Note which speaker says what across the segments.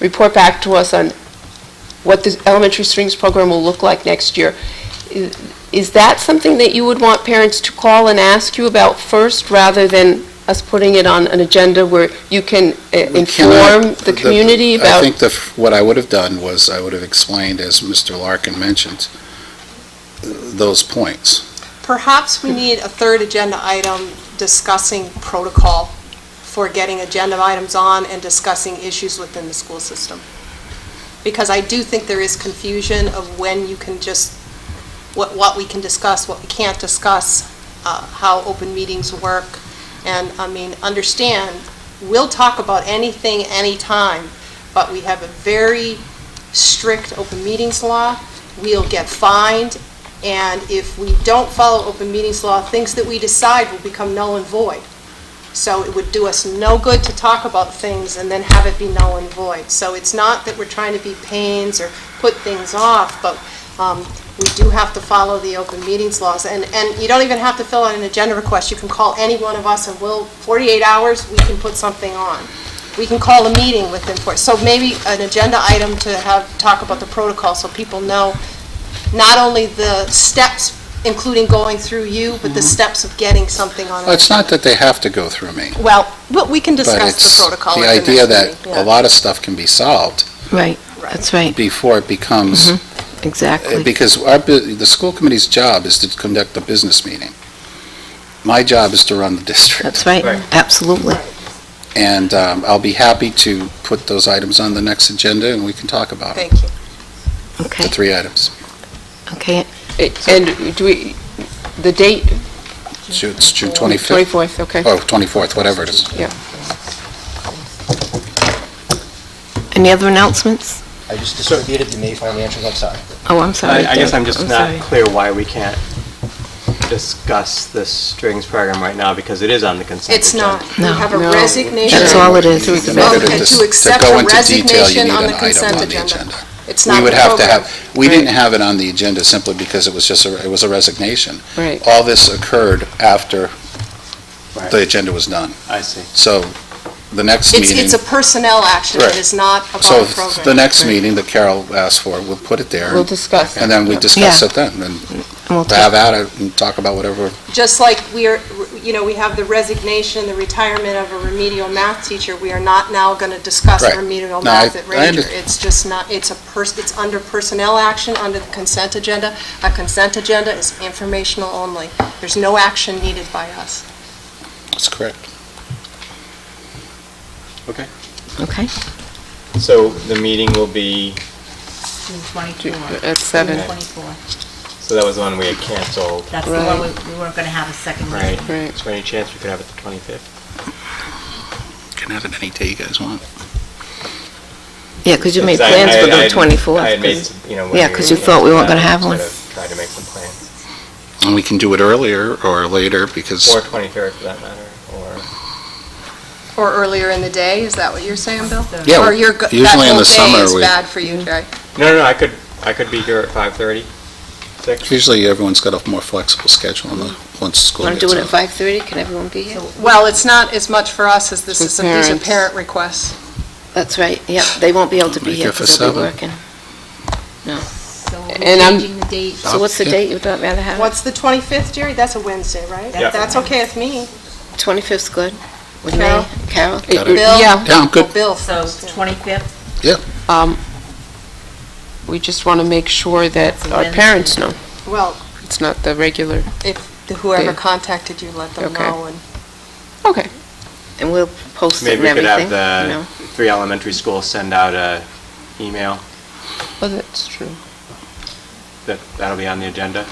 Speaker 1: report back to us on what the elementary strings program will look like next year. I- Is that something that you would want parents to call and ask you about first, rather than us putting it on an agenda where you can uh,
Speaker 2: We cannot-
Speaker 1: inform the community about?
Speaker 2: I think the, what I would have done was, I would have explained, as Mr. Larkin mentioned, those points.
Speaker 3: Perhaps we need a third agenda item discussing protocol for getting agenda items on and discussing issues within the school system. Because I do think there is confusion of when you can just, what, what we can discuss, what we can't discuss, uh, how open meetings work. And, I mean, understand, we'll talk about anything, anytime, but we have a very strict open meetings law. We'll get fined and if we don't follow open meetings law, things that we decide will become null and void. So it would do us no good to talk about things and then have it be null and void. So it's not that we're trying to be pains or put things off, but um, we do have to follow the open meetings laws. And, and you don't even have to fill out an agenda request. You can call any one of us and we'll, 48 hours, we can put something on. We can call a meeting within four, so maybe an agenda item to have, talk about the protocol so people know not only the steps, including going through you, but the steps of getting something on.
Speaker 2: Well, It's not that they have to go through me,
Speaker 3: Well, but we can
Speaker 2: but
Speaker 3: discuss
Speaker 2: it's
Speaker 3: the protocol.
Speaker 2: the
Speaker 3: at the
Speaker 2: idea
Speaker 3: next
Speaker 2: that
Speaker 3: meeting.
Speaker 2: a lot of stuff can be solved
Speaker 4: Right,
Speaker 3: Right.
Speaker 4: that's right,
Speaker 2: before it becomes,
Speaker 1: Mm-hmm.
Speaker 2: eh,
Speaker 4: exactly.
Speaker 2: because our, bu- the school committee's job is to conduct a business meeting. My job is to run the district,
Speaker 4: That's right, absolutely.
Speaker 2: and um, I'll be happy to put those items on the next agenda, and we can talk about them,
Speaker 3: Thank you.
Speaker 2: the
Speaker 4: Okay,
Speaker 2: three items.
Speaker 4: okay,
Speaker 1: And do we, the date?
Speaker 2: Ju- It's June 25th,
Speaker 1: 24th, okay.
Speaker 2: oh, 24th, whatever it is.
Speaker 4: any other announcements?
Speaker 5: I just distributed the May financials, I'm sorry.
Speaker 4: Oh, I'm sorry.
Speaker 6: I I guess
Speaker 4: Doug.
Speaker 6: I'm just not
Speaker 4: sorry.
Speaker 6: clear why we can't discuss the strings program right now, because it is on the consent
Speaker 3: It's
Speaker 6: agenda.
Speaker 3: not. We
Speaker 4: No.
Speaker 3: have a
Speaker 1: No.
Speaker 3: resignation.
Speaker 4: That's all it is.
Speaker 1: To
Speaker 2: In
Speaker 1: accept-
Speaker 2: order
Speaker 3: Okay, to
Speaker 2: dis-
Speaker 3: accept
Speaker 2: go
Speaker 3: a
Speaker 2: into detail, you
Speaker 3: resignation
Speaker 2: need
Speaker 3: on
Speaker 2: an
Speaker 3: the
Speaker 2: item
Speaker 3: consent
Speaker 2: on the
Speaker 3: agenda.
Speaker 2: agenda.
Speaker 3: It's not
Speaker 2: We
Speaker 3: in
Speaker 2: would
Speaker 3: the
Speaker 2: have to
Speaker 3: program.
Speaker 2: have, we didn't have it on the agenda simply because it was just, a it was a resignation.
Speaker 1: Right.
Speaker 2: All this occurred after
Speaker 6: Right.
Speaker 2: the agenda was done.
Speaker 6: I see.
Speaker 2: So the next
Speaker 3: It's,
Speaker 2: meeting,
Speaker 3: it's a personnel action. It
Speaker 2: Right.
Speaker 3: is not about
Speaker 2: so
Speaker 3: a program.
Speaker 2: the next meeting that Carol asked for, we'll put it there,
Speaker 1: We'll discuss.
Speaker 2: and then we discuss it then, and
Speaker 4: And we'll
Speaker 2: have
Speaker 4: take-
Speaker 2: at it and talk about whatever.
Speaker 3: just like we are, you know, we have the resignation, the retirement of a remedial math teacher, we are not now going to discuss
Speaker 2: Right.
Speaker 3: remedial
Speaker 2: No, I-
Speaker 3: math at
Speaker 2: I
Speaker 3: Ranger.
Speaker 2: under-
Speaker 3: It's just not, it's a person, it's under personnel action, under the consent agenda. A consent agenda is informational only. There's no action needed by us.
Speaker 2: That's correct.
Speaker 4: Okay,
Speaker 6: So the meeting will be,
Speaker 7: June 24.
Speaker 1: At seven.
Speaker 7: June 24.
Speaker 6: so that was the one we had canceled,
Speaker 7: That's the one we we weren't going to have a second meeting.
Speaker 6: right?
Speaker 1: Right.
Speaker 6: Is there any chance we could have it the 25th?
Speaker 2: Can have it any day you guys want.
Speaker 4: yeah, because you made
Speaker 6: Because I-
Speaker 4: plans
Speaker 6: I-
Speaker 4: for the
Speaker 6: I had- I had made,
Speaker 4: 24th.
Speaker 6: some- you know. when
Speaker 4: yeah,
Speaker 6: we
Speaker 4: 'cause
Speaker 6: were
Speaker 4: you thought we weren't gonna
Speaker 6: canceling,
Speaker 4: have one.
Speaker 6: sort of Tried to make some plans,
Speaker 2: And we can do it earlier or later, because
Speaker 6: or 23rd for that matter, or.
Speaker 3: Or earlier in the day, is that what you're saying, Bill?
Speaker 2: Yeah,
Speaker 3: Or you're, go-
Speaker 2: usually
Speaker 3: that
Speaker 2: in the
Speaker 3: whole day
Speaker 2: summer
Speaker 3: is
Speaker 2: we-
Speaker 3: bad for you, Jay?
Speaker 6: No, no, no, I could, I could be here at 5:30, 6.
Speaker 2: usually everyone's got a more flexible schedule on the, once school
Speaker 1: Want
Speaker 2: gets
Speaker 1: to do it
Speaker 2: out.
Speaker 1: at 5:30? Can everyone be here?
Speaker 3: Well, it's not as much for us as this
Speaker 1: With
Speaker 3: is, some- these are
Speaker 1: parents.
Speaker 3: parent requests.
Speaker 4: That's right, yep, they won't be able to be
Speaker 2: Make
Speaker 4: here
Speaker 2: it for
Speaker 4: because they'll be
Speaker 2: seven.
Speaker 4: working.
Speaker 7: So we're
Speaker 1: And I'm-
Speaker 7: changing the date.
Speaker 4: So what's the
Speaker 2: Yeah.
Speaker 4: date you'd rather have? it?
Speaker 3: What's the 25th, Jerry? That's a Wednesday, right?
Speaker 6: Yeah.
Speaker 3: That's okay with me.
Speaker 4: 25th's good. With me,
Speaker 3: Carol?
Speaker 4: Carol?
Speaker 2: Got it.
Speaker 3: Bill?
Speaker 1: Yeah,
Speaker 2: Yeah, I'm good.
Speaker 3: Well, Bill
Speaker 7: So
Speaker 3: first. yeah.
Speaker 7: 25th,
Speaker 1: um, we just want to make sure that
Speaker 7: So
Speaker 1: our
Speaker 7: Wednesday.
Speaker 1: parents know.
Speaker 3: Well,
Speaker 1: It's not the regular,
Speaker 3: If the- whoever
Speaker 1: Yeah.
Speaker 3: contacted you, let them
Speaker 1: Okay.
Speaker 3: know. and-
Speaker 1: okay.
Speaker 4: And we'll post it
Speaker 6: Maybe
Speaker 4: and
Speaker 6: we could
Speaker 4: everything,
Speaker 6: have
Speaker 4: you know?
Speaker 6: the three elementary schools send out a email,
Speaker 1: Well, that's true.
Speaker 6: that, that'll be on the agenda.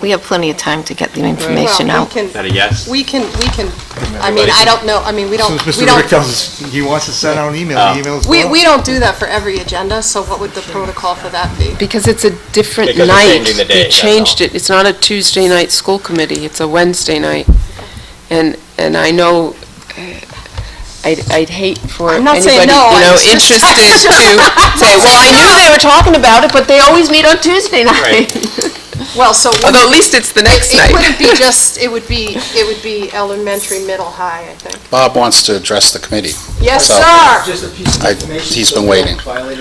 Speaker 4: We have plenty of time to get the
Speaker 3: Well,
Speaker 4: information
Speaker 3: we
Speaker 4: out.
Speaker 6: Is
Speaker 3: can-
Speaker 6: that a yes?
Speaker 3: We can, we can, I mean, I don't know, I mean, we don't,
Speaker 8: Since
Speaker 3: we
Speaker 8: Mr. Rick
Speaker 3: don't,
Speaker 8: tells us he wants to send out an email,
Speaker 6: Oh.
Speaker 8: the email's
Speaker 3: we,
Speaker 8: gone.
Speaker 3: we don't do that for every agenda, so what would the protocol for that be?
Speaker 1: Because it's a different
Speaker 6: Because we're
Speaker 1: night.
Speaker 6: changing the
Speaker 1: We
Speaker 6: day, that's
Speaker 1: changed
Speaker 6: all.
Speaker 1: it. It's not a Tuesday night school committee, it's a Wednesday night. And, and I know, uh, I'd, I'd hate for
Speaker 3: I'm not
Speaker 1: anybody,
Speaker 3: saying
Speaker 1: you
Speaker 3: no, I
Speaker 1: know,
Speaker 3: was just-
Speaker 1: interested to say, well, I knew they were talking about it, but they always meet on Tuesday night.
Speaker 6: Right.
Speaker 3: Well, so.
Speaker 1: Although at least it's the next night.
Speaker 3: It wouldn't be just, it would be, it would be elementary, middle, high, I think.
Speaker 2: Bob wants to address the committee.
Speaker 3: Yes,
Speaker 2: So-
Speaker 3: sir.
Speaker 5: Just a piece of
Speaker 2: I-
Speaker 5: information.
Speaker 2: he's
Speaker 5: so
Speaker 2: been
Speaker 5: we don't
Speaker 2: waiting.
Speaker 5: violate